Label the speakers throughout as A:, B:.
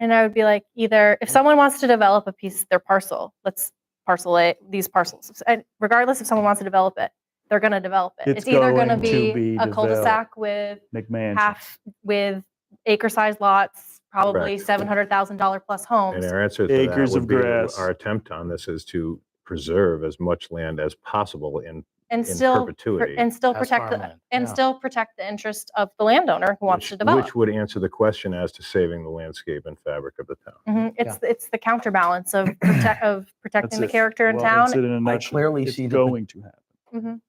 A: And I would be like, either if someone wants to develop a piece, their parcel, let's parcel it, these parcels. And regardless if someone wants to develop it, they're going to develop it. It's,
B: It's
A: either going to
B: going to
A: be,
B: be
A: a cul-de-sac with
B: McMansion.
A: half with acre-sized lots, probably seven hundred thousand dollar plus homes.
C: And our answer to that
B: Acres of
C: would be,
B: grass.
C: our attempt on this is to preserve as much land as possible in,
A: and
C: in
A: still pr-
C: perpetuity.
A: and still
D: As
A: protect the
D: farmland,
A: and
D: yeah.
A: still protect the interest of the landowner who wants
C: which-
A: to develop.
C: Which would answer the question as to saving the landscape and fabric of the town.
A: Mhm. It's it's the counterbalance of prote- of protecting the
B: it.
A: character in
B: Well,
A: town.
B: that's it in a
D: I
B: nutshell.
D: clearly
B: It's
D: see the, pot-
B: going to happen.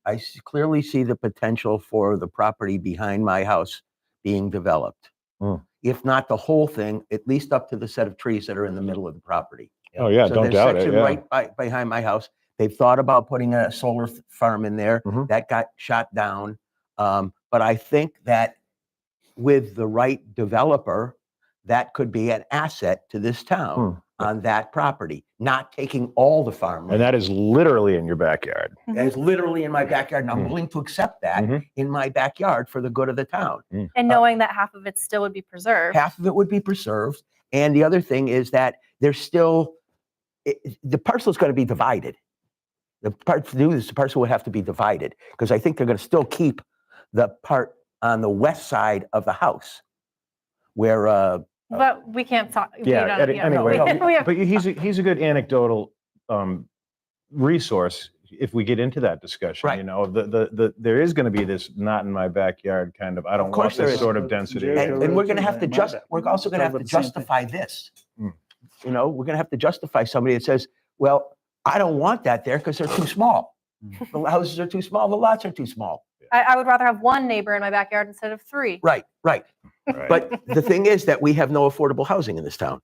D: I s- clearly see the potential for the property behind my house being developed.
C: Hmm.
D: If not the whole thing, at least up to the set of trees that are in the middle of the property.
C: Oh, yeah,
D: So there's section Right by, behind my house. They've thought about putting a solar f- farm in there.
C: Mhm.
D: That got shot down. Um, but I think that with the right developer, that could be an asset to this town on that property, not taking all the
C: Hmm. And
D: farmland.
C: that is literally in your backyard.
D: That is literally in my backyard and I'm
C: Mm.
D: willing to accept that
C: Mhm.
D: in my backyard for the good of the town.
A: And knowing that half of it still would be preserved.
D: half of it would be preserved. And the other thing is that there's still, it, it- the parcel is going to be divided. The part to do this, the parcel would have to be divided because I think they're going to still keep the part on the west side of the house where, uh,
A: But we can't talk. we
C: Yeah,
A: don't-
C: any-
A: yeah, no, we-
C: anyway,
A: we have-
C: but he's, a- he's a good anecdotal um, resource if we get into that discussion, you
D: Right.
C: know, the, the, the, there is going to be this not in my backyard kind of, I don't want
D: course there
C: this
D: is.
C: sort of density.
B: Yeah,
D: and,
B: yeah,
D: and we're
B: yeah,
D: going to
B: yeah,
D: have to
B: my
D: just,
B: bad.
D: we're also going to
B: Talking
D: have to
B: about the same thing. Hmm.
D: justify this.
C: Mm.
D: You know, we're going to have to justify somebody that says, well, I don't want that there because they're too small.
B: Hmm.
D: The houses are too small, the lots are too small.
A: I, I would rather have one neighbor in my backyard instead of three.
D: Right, right.
C: Right.
D: But the thing is that we have no affordable housing in this town.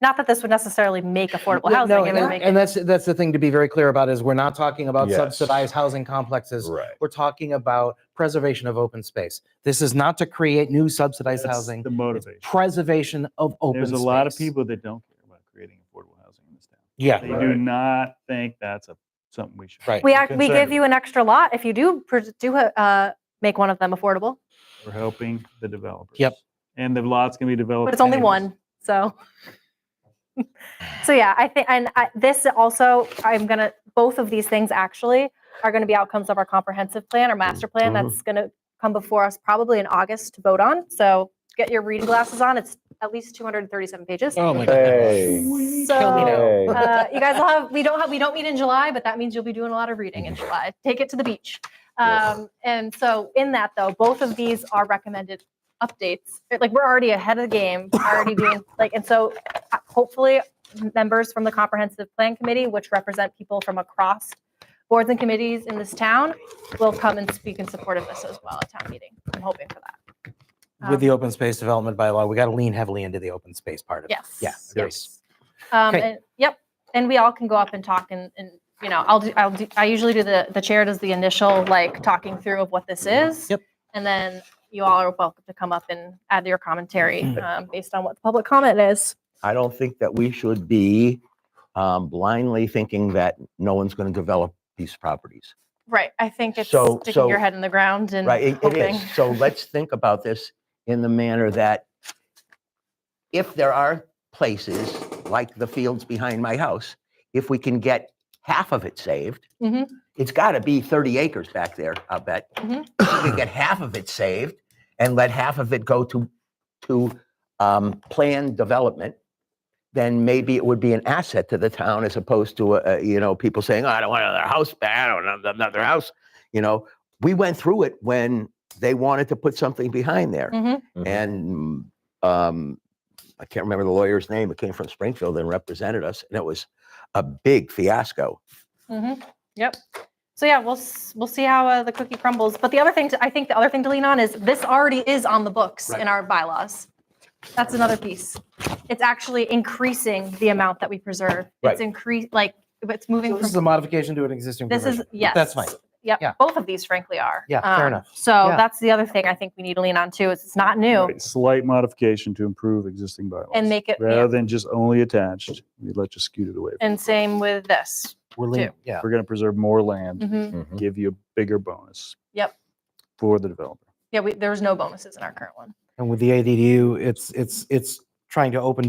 A: Not that this would necessarily make affordable
E: Yeah,
A: housing.
E: no,
A: it
E: and,
A: would
E: that-
A: make
E: and that's that's the thing to be very clear about is we're not talking about
C: Yes.
E: subsidized housing complexes.
C: Right.
E: We're talking about preservation of open space. This is not to create new subsidized
B: That's
E: housing.
B: The
E: It's
B: motivation.
E: preservation of open.
B: There's a lot of
E: space.
B: people that don't care about creating affordable housing in this town.
E: Yeah.
B: They do not think that's a, something we should.
E: Right.
A: we act, we
B: concerned
A: give you an extra lot if you do pr- do uh, make one of them affordable,
B: We're helping the developers.
E: Yep.
B: And the lots can be developed.
A: but it's only
B: anyways.
A: one. So, so yeah, I think, and I, this also, I'm gonna both of these things actually are gonna be outcomes of our comprehensive plan or master plan that's gonna come before us probably in August to vote on. So get your reading glasses on. It's at least 237 pages.
E: Oh my
C: Hey.
E: Tell me
A: So,
C: Hey.
A: uh, you guys will have we don't have we don't meet in July, but that means you'll be doing a lot of reading in
E: Mm-hmm.
A: July. Take it to the beach. Um, and so in that though, both of these are recommended updates. It- Like we're already ahead of the game, already doing like and so uh, hopefully members from the comprehensive plan committee, which represent people from across boards and committees in this town, will come and speak in support of this as well at town meeting. I'm hoping for that.
E: With the
A: Um,
E: open space development bylaw, we got to lean heavily into the open space part of it.
A: Yes.
E: Yeah,
A: Yes.
E: yes.
A: Um,
E: Great.
A: and, yep. And we all can go up and talk and, and, you know, I'll do, I'll do, I usually do the, the chair does the initial like talking through of what this is.
E: Yep.
A: And then you all are welcome to come up and add your commentary,
D: Mm.
A: um, based on what the public comment is.
D: I don't think that we should be um, blindly thinking that no one's going to develop these properties.
A: Right. I think it's
D: So-
A: sticking your
D: so-
A: head in the ground and
D: Right? It- it
A: hoping.
D: is. So let's think about this in the manner that if there are places like the fields behind my house, if we can get half of it saved,
A: Mhm.
D: it's got to be 30 acres back there, I'll bet.
A: Mhm.
D: If we can get half of it saved and let half of it go to, to um, planned development, then maybe it would be an asset to the town as opposed to, uh, uh, you know, people saying, oh, I don't want another house back. I don't want another house. You know, we went through it when they wanted to put something behind there.
A: Mhm.
C: Mhm.
D: And um, I can't remember the lawyer's name. It came from Springfield and represented us. And it was a big fiasco.
A: Mhm. Yep. So yeah, we'll, s- we'll see how uh, the cookie crumbles. But the other thing, to, I think the other thing to lean on is this already is on the books in our bylaws. That's another piece. It's actually increasing the amount that we preserve.
D: Right.
A: It's increase, like, it's moving
E: This is
A: from,
E: a modification to an existing
A: this is,
E: provision.
A: yes.
E: That's fine. yeah.
A: Yep, both of these frankly are.
E: Yeah, fair
A: Um,
E: enough.
A: So
E: Yeah.
A: that's the other thing I think we need to lean on too, is it's not new.
B: Right, Slight modification to improve existing bylaws.
A: And make it- yeah.
B: Rather than just only attached, we let you scoot it away.
A: And same with this.
E: We're
A: too.
E: leaning, yeah.
B: We're going to preserve more land,
A: Mhm.
C: Mhm.
B: give you a bigger bonus.
A: Yep.
B: For the developer.
A: Yeah, we, there's no bonuses in our current one.
E: And with the ADU, it's, it's, it's trying to open